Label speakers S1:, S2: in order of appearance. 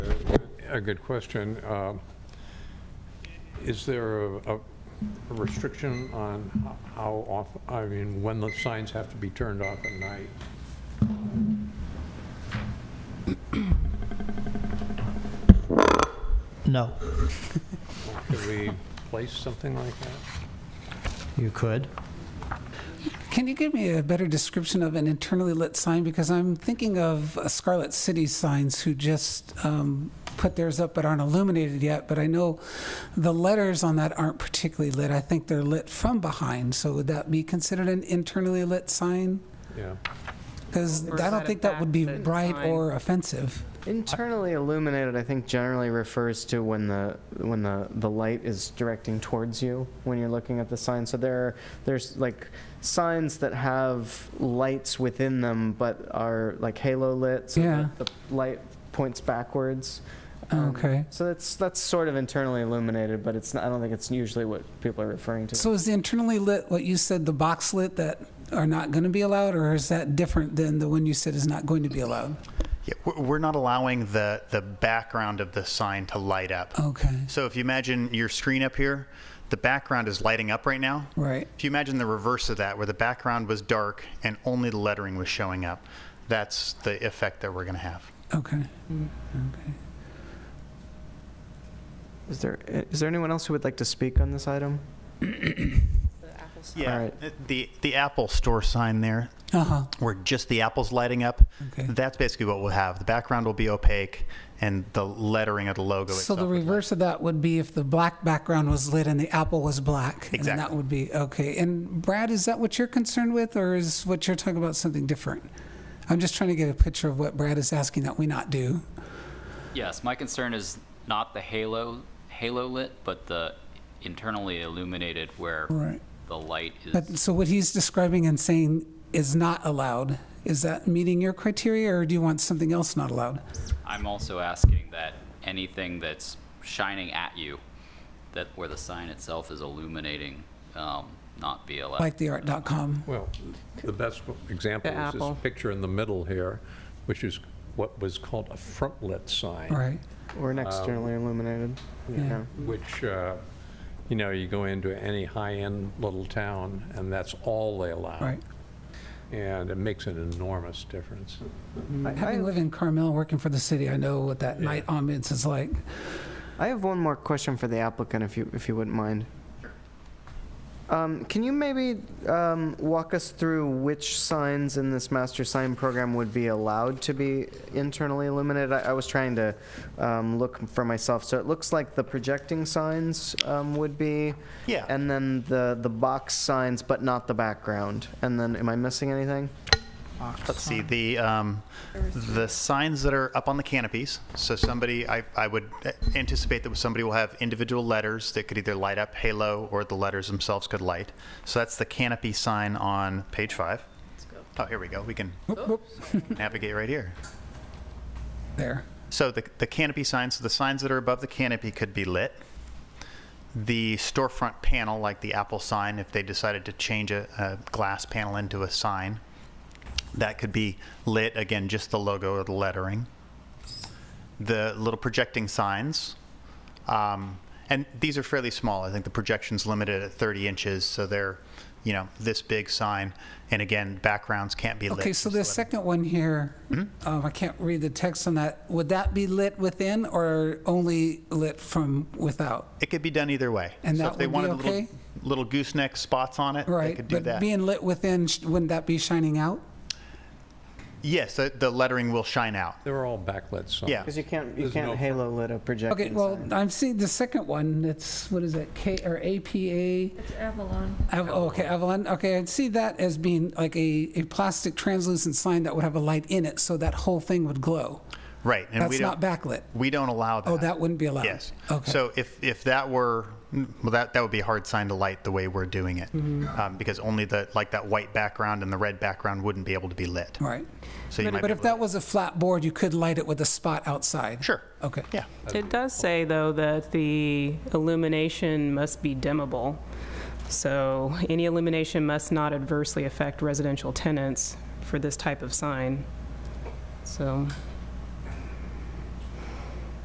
S1: a good question. Um, Is there a a restriction on how often, I mean, when the signs have to be turned off at night?
S2: No,
S1: Could we place something like that?
S2: you could.
S3: Can you give me a better description of an internally lit sign? Because I'm thinking of uh, Scarlet City signs who just um, put theirs up but aren't illuminated yet. But I know the letters on that aren't particularly lit. I think they're lit from behind. So would that be considered an internally lit sign?
S1: Yeah.
S3: Because
S4: Or is
S3: I
S4: that
S3: don't
S4: a
S3: think that would be
S4: backlit
S3: bright
S4: sign?
S3: or offensive.
S5: Internally illuminated, I think generally refers to when the, when the, the light is directing towards you, when you're looking at the sign. So there, are- there's like signs that have lights within them, but are like halo lit, so
S3: Yeah.
S5: that the light points backwards. Um,
S3: Okay.
S5: So that's, that's sort of internally illuminated, but it's not, I don't think it's usually what people are referring to.
S3: So is the internally lit what you said the box lit that are not going to be allowed, or is that different than the one you said is not going to be allowed?
S6: Yeah, we're- we're not allowing the, the background of the sign to light up.
S3: Okay.
S6: So if you imagine your screen up here, the background is lighting up right now.
S3: Right.
S6: If you imagine the reverse of that, where the background was dark and only the lettering was showing up, that's the effect that we're going to have.
S3: Okay.
S5: Is there, is there anyone else who would like to speak on this item?
S6: Yeah.
S5: All right.
S6: The, the Apple store sign there,
S3: Uh huh.
S6: where just the apple's lighting up,
S3: Okay.
S6: that's basically what we'll have. The background will be opaque and the lettering of the logo
S3: So
S6: itself.
S3: the
S6: will be-
S3: reverse of that would be if the black background was lit and the apple was black. and then that
S6: Exactly.
S3: would be, okay. And Brad, is that what you're concerned with, or is what you're talking about something different? I'm just trying to get a picture of what Brad is asking that we not do.
S7: Yes, my concern is not the halo, halo lit, but the internally illuminated where
S3: Right.
S7: the light is.
S3: But, so what he's describing and saying is not allowed, is that meeting your criteria, or do you want something else not allowed?
S7: I'm also asking that anything that's shining at you, that where the sign itself is illuminating, um, not be allowed.
S3: Like the art.com.
S1: Well, the best example is
S4: apple.
S1: this picture in the middle here, which is what was called a frontlit sign.
S3: Right.
S5: Or an externally illuminated?
S3: Yeah.
S1: which, uh, you know, you go into any high-end little town, and that's all they allow.
S3: Right.
S1: And it makes an enormous difference.
S3: Having lived in Carmel, working for the city, I know what that night ambiance is like.
S5: I have one more question for the applicant, if you, if you wouldn't mind. Um, Can you maybe um, walk us through which signs in this master sign program would be allowed to be internally illuminated? I I was trying to um, look for myself, so it looks like the projecting signs um, would be.
S6: Yeah.
S5: And then the, the box signs, but not the background. And then, am I missing anything?
S6: Let's see, the, um, the signs that are up on the canopies, so somebody, I, I would uh, anticipate that somebody will have individual letters that could either light up halo or the letters themselves could light. So that's the canopy sign on page five. Oh, here we go, we can navigate right here.
S3: There.
S6: So the, the canopy signs, so the signs that are above the canopy could be lit. The storefront panel, like the Apple sign, if they decided to change a, a glass panel into a sign, that could be lit. Again, just the logo or the lettering. The little projecting signs. Um, and these are fairly small. I think the projection's limited at 30 inches, so they're, you know, this big sign. And again, backgrounds can't be lit.
S3: Okay, so
S6: just
S3: the
S6: lettering.
S3: second one here,
S6: Hmm?
S3: um, I can't read the text on that. Would that be lit within or only lit from without?
S6: It could be done either way.
S3: And
S6: so
S3: that
S6: if they
S3: would be
S6: wanted
S3: okay?
S6: little, little gooseneck spots on it, they
S3: Right,
S6: could do
S3: but
S6: that.
S3: being lit within, sh- wouldn't that be shining out?
S6: yes, the, the lettering will shine out.
S1: They're all backlit signs.
S6: Yeah.
S5: Because you can't, you
S1: There's no
S5: can't
S1: fr-
S5: halo lit a projecting
S3: Okay,
S5: sign.
S3: well, I'm seeing the second one. It's what is it? K or APA?
S4: It's Avalon.
S3: Av- oh, okay, Avalon. Okay, I'd see that as being like a, a plastic translucent sign that would have a light in it, so that whole thing would glow.
S6: Right. And we
S3: That's
S6: don't,
S3: not backlit.
S6: We don't allow that.
S3: Oh, that wouldn't be allowed.
S6: Yes.
S3: Okay.
S6: So if, if that were, well, that, that would be a hard sign to light the way we're doing it.
S3: Mm-hmm.
S6: Um, because only the, like that white background and the red background wouldn't be able to be lit.
S3: Right.
S6: So you might
S3: But
S6: be
S3: if
S6: able
S3: that was a flat board, you could light it with a spot outside.
S6: to, Sure.
S3: Okay.
S6: Yeah.
S4: It does say, though, that the illumination must be dimmable. So any illumination must not adversely affect residential tenants for this type of sign. So